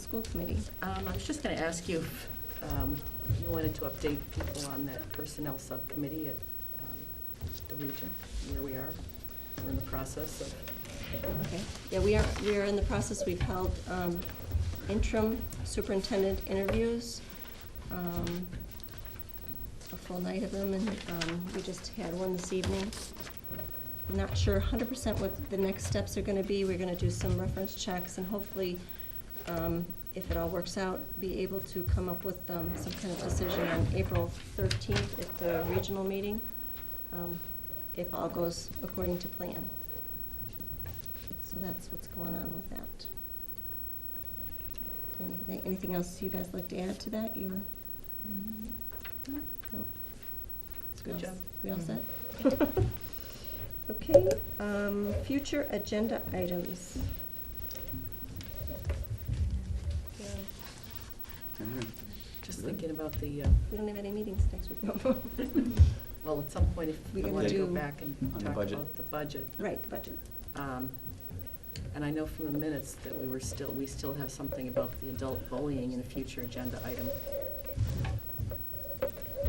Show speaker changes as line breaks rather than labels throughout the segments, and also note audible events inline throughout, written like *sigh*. school committee.
Um, I was just going to ask you if um, you wanted to update people on that personnel subcommittee at um, the region, where we are. We're in the process of,
Okay, yeah, we are, we are in the process, we've held um, interim superintendent interviews, um, a full night of them, and um, we just had one this evening. Not sure hundred percent what the next steps are gonna be, we're gonna do some reference checks, and hopefully, um, if it all works out, be able to come up with um, some kind of decision on April thirteenth at the regional meeting, um, if all goes according to plan. So that's what's going on with that. Anything, anything else you guys like to add to that? You were? No?
Mm-hmm. Good
We all-
job.
We all set? *laughs* Okay, um, future agenda items. Yeah,
just thinking about the, uh,
We don't have any meetings next week. *laughs* no.
well, at some point,
We
if we
gotta
want to go
do-
back and
On the
talk
budget.
about the budget.
Right, the budget.
Um, And I know from the minutes that we were still, we still have something about the adult bullying in a future agenda item.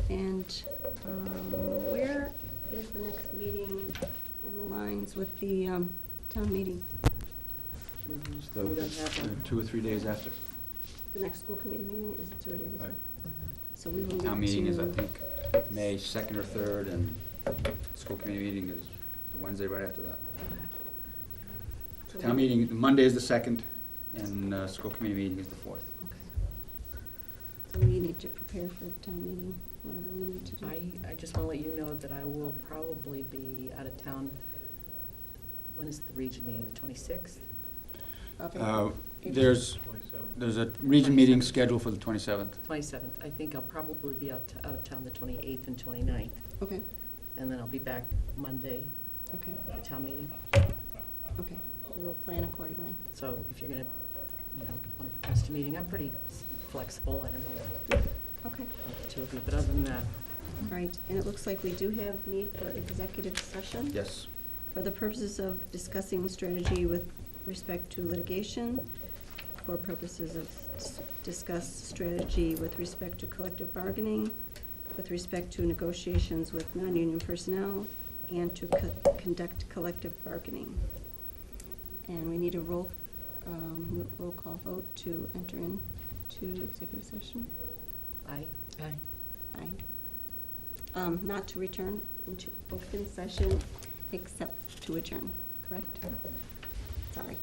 And um, where is the next meeting in lines with the um, town meeting?
We
Just
we don't
the-
have one.
Two or three days after.
The next school committee meeting is two or three days
Right.
ago. So we will need to.
Town meeting is, I think, May 2nd or 3rd, and school committee meeting is the Wednesday right after that.
So
Town
we-
meeting, Monday is the 2nd, and uh, school committee meeting is the 4th.
Okay. So we need to prepare for town meeting, whatever we need to do.
I, I just want to let you know that I will probably be out of town. When is the region meeting, the twenty-sixth?
Of it.
Uh, There's, there's a region meeting scheduled for the 27th.
Twenty-seventh, I think I'll probably be out, out of town the twenty-eighth and 29th,
Okay,
and then I'll be back Monday
okay,
for town meeting.
okay. We will plan accordingly.
So if you're gonna, you know, want to post a meeting, I'm pretty s- flexible, I don't know
Okay,
about the two of you, but other than that,
all right. And it looks like we do have need for executive session.
Yes.
for the purposes of discussing strategy with respect to litigation, for purposes of s- discuss strategy with respect to collective bargaining, with respect to negotiations with non-union personnel, and to co- conduct collective bargaining. And we need a roll, um, roll call vote to enter into executive session.
I,
Aye. Um, Not to return into open session except to adjourn, correct? Sorry.